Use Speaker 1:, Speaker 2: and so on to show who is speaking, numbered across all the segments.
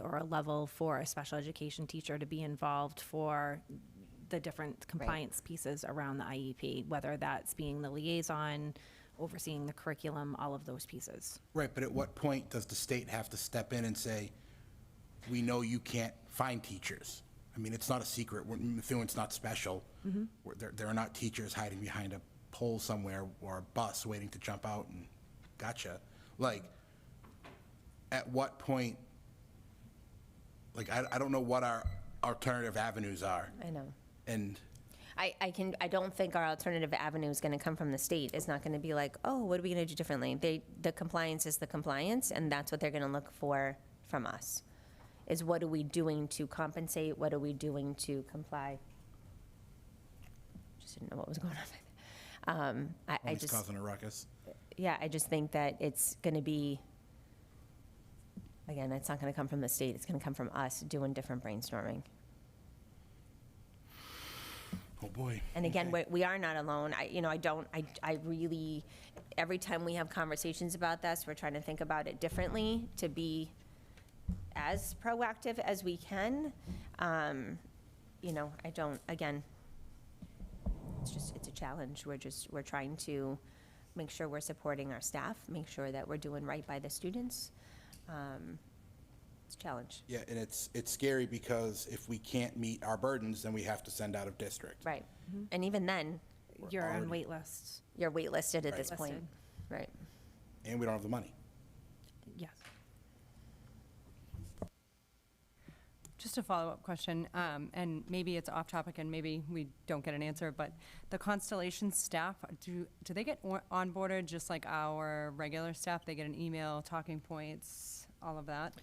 Speaker 1: or a level for a special education teacher to be involved for the different compliance pieces around the IEP, whether that's being the liaison, overseeing the curriculum, all of those pieces.
Speaker 2: Right, but at what point does the state have to step in and say, we know you can't find teachers? I mean, it's not a secret, We're- Methuen—it's not special.
Speaker 3: Mm-hmm.
Speaker 2: We're- There, there are not teachers hiding behind a pole somewhere or a bus waiting to jump out and, gotcha. Like, at what point, like, I, I don't know what our alternative avenues are.
Speaker 3: I know.
Speaker 2: And,
Speaker 3: I, I can, I don't think our alternative avenue is gonna come from the state. It's not gonna be like, oh, what are we gonna do differently? They, the compliance is the compliance, and that's what they're gonna look for from us. Is what are we doing to compensate? What are we doing to comply? Just didn't know what was going on. Um, I, I
Speaker 2: always
Speaker 3: just,
Speaker 2: oh, causing a ruckus.
Speaker 3: yeah, I just think that it's gonna be, again, it's not gonna come from the state. It's gonna come from us doing different brainstorming.
Speaker 2: Oh, boy.
Speaker 3: And again, we we are not alone. I, you know, I don't, I, I really, every time we have conversations about this, we're trying to think about it differently to be as proactive as we can. Um, You know, I don't, again, it's just, it's a challenge. We're just, we're trying to make sure we're supporting our staff, make sure that we're doing right by the students. Um, It's a challenge.
Speaker 2: Yeah, and it's, it's scary because if we can't meet our burdens, then we have to send out of district.
Speaker 3: Right. And even then,
Speaker 1: You're on
Speaker 2: already-
Speaker 1: wait lists.
Speaker 3: you're waitlisted at this point.
Speaker 1: Listed.
Speaker 3: Right.
Speaker 2: and we don't have the money.
Speaker 1: Yes.
Speaker 4: Just a follow-up question, um, and maybe it's off topic and maybe we don't get an answer, but the Constellation staff, do, do they get on- onboarded just like our regular staff? They get an email, talking points, all of that?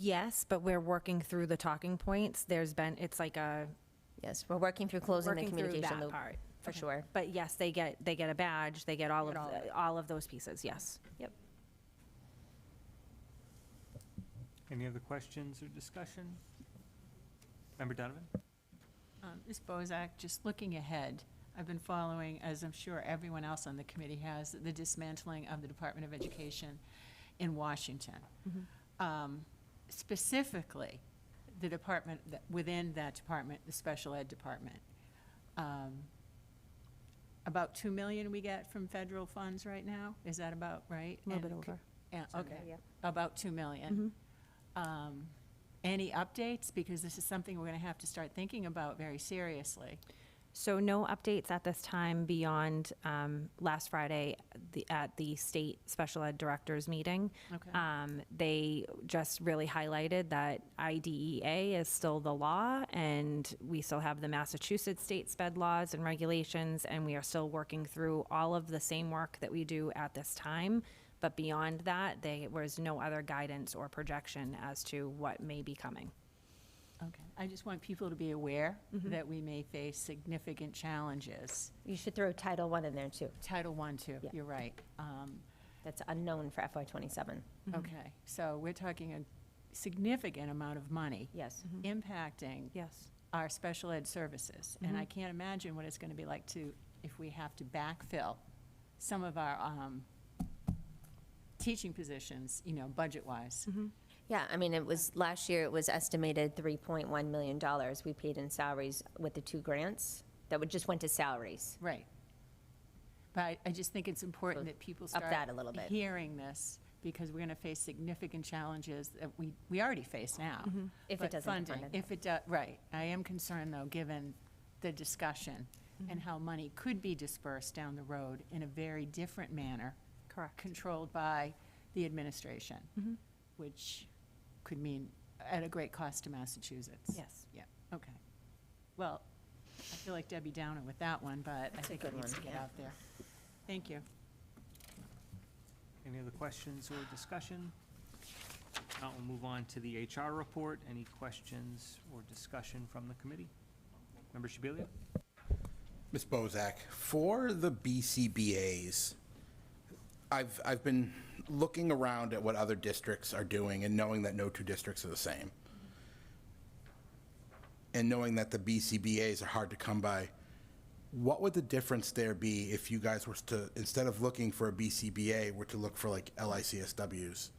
Speaker 1: Yes, but we're working through the talking points. There's been, it's like a,
Speaker 3: Yes, we're working through closing the
Speaker 1: working through
Speaker 3: communication
Speaker 1: that
Speaker 3: loop.
Speaker 1: part.
Speaker 3: for
Speaker 1: Okay.
Speaker 3: sure.
Speaker 1: But yes, they get, they get a badge, they get all of,
Speaker 4: Get all of
Speaker 1: the- all of those pieces, yes.
Speaker 3: Yep.
Speaker 5: Any other questions or discussion? Member Donovan?
Speaker 6: Um, Ms. Bozak, just looking ahead, I've been following, as I'm sure everyone else on the committee has, the dismantling of the Department of Education in Washington.
Speaker 1: Mm-hmm.
Speaker 6: Um, Specifically, the department, that- within that department, the special ed department. Um, About 2 million we get from federal funds right now? Is that about right?
Speaker 1: A little
Speaker 6: And
Speaker 1: bit
Speaker 6: c-
Speaker 1: over.
Speaker 6: Yeah, okay,
Speaker 3: Yep.
Speaker 6: about 2 million.
Speaker 1: Mm-hmm.
Speaker 6: Um, Any updates? Because this is something we're going to have to start thinking about very seriously.
Speaker 1: So no updates at this time beyond um, last Friday the- at the state special ed directors meeting.
Speaker 6: Okay.
Speaker 1: Um, They just really highlighted that IDEA is still the law, and we still have the Massachusetts state sped laws and regulations, and we are still working through all of the same work that we do at this time. But beyond that, there was no other guidance or projection as to what may be coming.
Speaker 6: Okay. I just want people to be aware that we may face significant challenges.
Speaker 3: You should throw Title One in there too.
Speaker 6: Title I, too,
Speaker 3: Yeah.
Speaker 6: you're right. Um,
Speaker 3: That's unknown for FY twenty-seven.
Speaker 6: Okay, so we're talking a significant amount of money
Speaker 3: Yes.
Speaker 6: impacting
Speaker 1: Yes.
Speaker 6: our special ed services. And I can't imagine what it's going to be like to, if we have to backfill some of our um, teaching positions, you know, budget-wise.
Speaker 3: Yeah, I mean, it was, last year it was estimated three point one million dollars we paid in salaries with the two grants that would, just went to salaries.
Speaker 6: Right. But I, I just think it's important that people
Speaker 3: up
Speaker 6: start.
Speaker 3: that a little bit.
Speaker 6: Hearing this, because we're going to face significant challenges that we, we already face now.
Speaker 3: Mm-hmm. If it
Speaker 6: But
Speaker 3: doesn't get funded.
Speaker 6: If it does, right. I am concerned, though, given the discussion
Speaker 3: Mm-hmm.
Speaker 6: and how money could be dispersed down the road in a very different manner.
Speaker 1: Correct.
Speaker 6: Controlled by the administration,
Speaker 3: Mm-hmm.
Speaker 6: which could mean at a great cost to Massachusetts.
Speaker 1: Yes.
Speaker 6: Yeah, okay. Well, I feel like Debbie Downer with that one, but I
Speaker 3: That's a
Speaker 6: think it
Speaker 3: good
Speaker 6: needs to
Speaker 3: one,
Speaker 6: get
Speaker 3: yeah.
Speaker 6: out there. Thank you.
Speaker 5: Any other questions or discussion? If not, we'll move on to the HR report. Any questions or discussion from the committee? Member Shabilia?
Speaker 2: Ms. Bozak, for the BCBA's, I've, I've been looking around at what other districts are doing and knowing that no two districts are the same. And knowing that the BCBA's are hard to come by, what would the difference there be if you guys were to, instead of looking for a BCBA, were to look for like LICSW's?